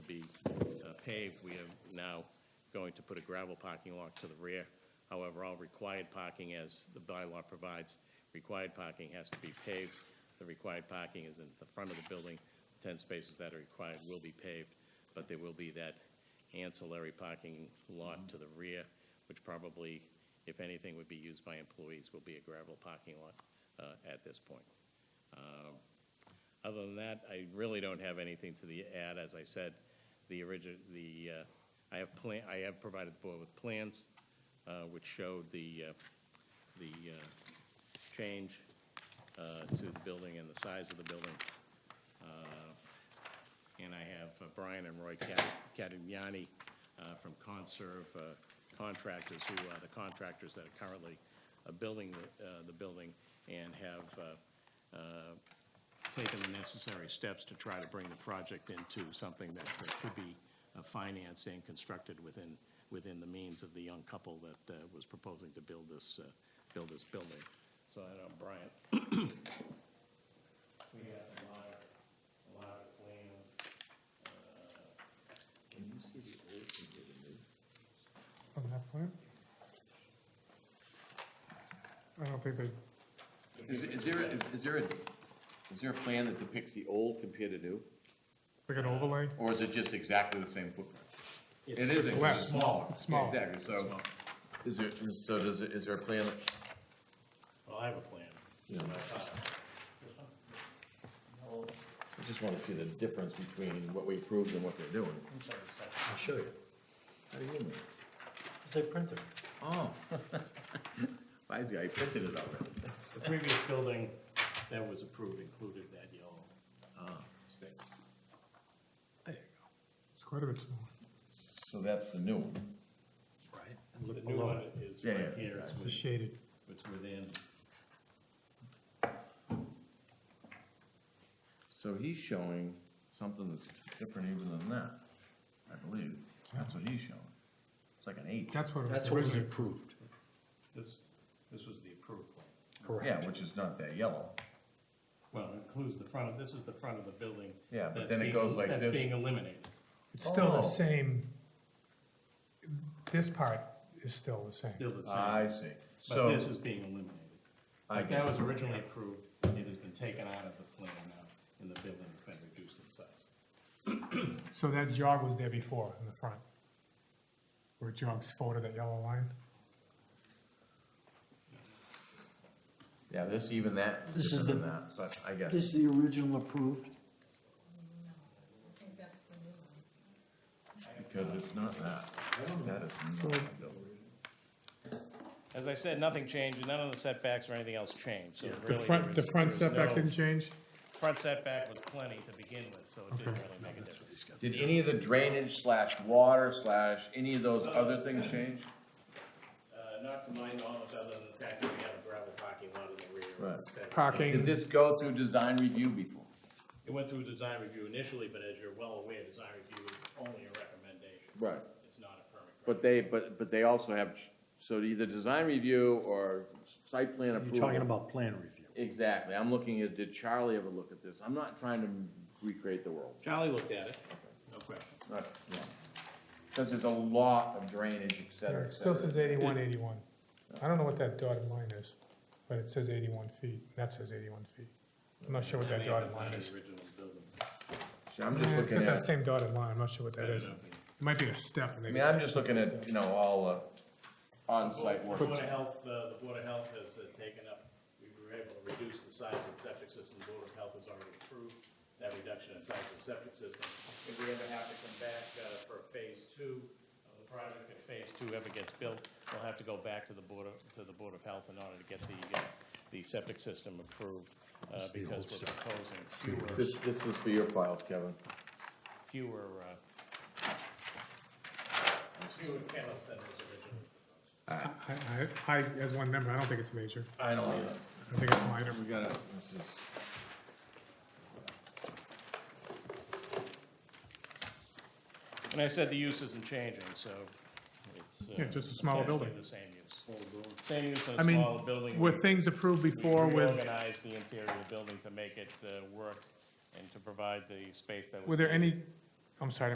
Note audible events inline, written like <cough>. uh, paved, we are now going to put a gravel parking lot to the rear. However, all required parking, as the bylaw provides, required parking has to be paved. The required parking is in the front of the building. Ten spaces that are required will be paved, but there will be that ancillary parking lot to the rear, which probably, if anything, would be used by employees, will be a gravel parking lot uh, at this point. Um, Other than that, I really don't have anything to the add. As I said, the origin, the, uh, I have plan, I have provided the board with plans uh, which showed the, uh, the uh, change uh, to the building and the size of the building. Uh, And I have uh, Brian and Roy Cat- Catignani uh, from Conserve uh, Contractors, who are the contractors that are currently uh, building the, uh, the building and have uh, uh, taken the necessary steps to try to bring the project into something that that could be uh, financed and constructed within, within the means of the young couple that uh, was proposing to build this, uh, build this building. So I don't, Brian. <coughs> We have a lot of, a lot of uh, plan. on that plan? I don't think they, Is, is there, is is there, a is there a plan that depicts the old compared to new? like an overlay, Or is it just exactly the same footprint? It It's- isn't, 'cause it's less. smaller. It's smaller. Exactly, so, is there, so does, it- is there a plan? that- Well, I have a plan. I just wanna see the difference between what we approved and what they're doing. I'll show you. How do you know? It's a printer. Oh. <laughs> Why is he, I printed it already. The previous building that was approved included that yellow. uh, There you it's quite a bit smaller. So that's the new one. go. Right. And The look new below one it. is Yeah, right yeah, here, it's The with- shaded, it's within, So he's showing something that's different even than that, I believe. That's what he's showing. It's like an eight. that's what it That's was what was originally, approved. this, this was the approved plan. Correct. Yeah, which is not that yellow. Well, it includes the front of, this is the front of the building. Yeah, but that's then it being- goes like That's this. being eliminated. it's still Oh. the same, this part is still the same. Still the same, I see. but So, this is being eliminated. I Like that was originally approved, it has been taken out of the plan now, and the building's been reduced in size. So that jog was there before in the front, where it jogs forward of that yellow line. yeah, this, even that, is This is different than that, but I guess. This is the original approved. Because it's not that. That is not that building. As I said, nothing changed, none of the setbacks or anything else changed, so The really. front, there the was- front there was setback no- didn't change? Front setback was plenty to begin with, so it didn't really make a difference. Did any of the drainage slash water slash any of those other things change? Uh, not to my knowledge, other than the fact that we have a gravel parking lot in the rear. Right. instead of- Did Parking, this go through design review before? It went through design review initially, but as you're well aware, design review is only a recommendation. Right. It's not a permit. But they, but, but they also have, ch- so either design review or site plan You're approval. talking about plan review. Exactly. I'm looking at, did Charlie ever look at this? I'm not trying to recreate the world. Charlie looked at it, no question. Not- yeah. Cause there's a lot of drainage, yeah, et cetera, it et still cetera. says eighty-one, eighty-one. I don't know what that dotted line is, but it says eighty-one feet, that says eighty-one feet. I'm not sure what that dotted line is. Original building. See, I'm just Yeah, It's looking got that at, I same dotted line, I'm not sure what that is. It might be a step, and they mean, just- I'm just looking at, you know, all, uh, on-site work. The Board of Health, uh, the Board of Health has uh, taken up, we were able to reduce the size of the septic system, the Board of Health has already approved that reduction in size of the septic system. If we ever have to come back uh, for a phase two of the project, if phase two ever gets built, we'll have to go back to the Board of, to the Board of Health in order to get the, uh, the septic system approved, uh, because we're proposing fewer, This, this is for your files, Kevin. fewer, uh, fewer kennels than was originally proposed. I, I, I, as one member, I don't think it's major. I don't either. I think it's minor. We gotta, this is. And I said the use isn't changing, so it's. uh, Yeah, just a smaller essentially building. the same use. Same use and I a mean, smaller building. were We- things approved before we with, Reorganized the interior of the building to make it uh, work and to provide the space that was. were there needed. any, I'm sorry,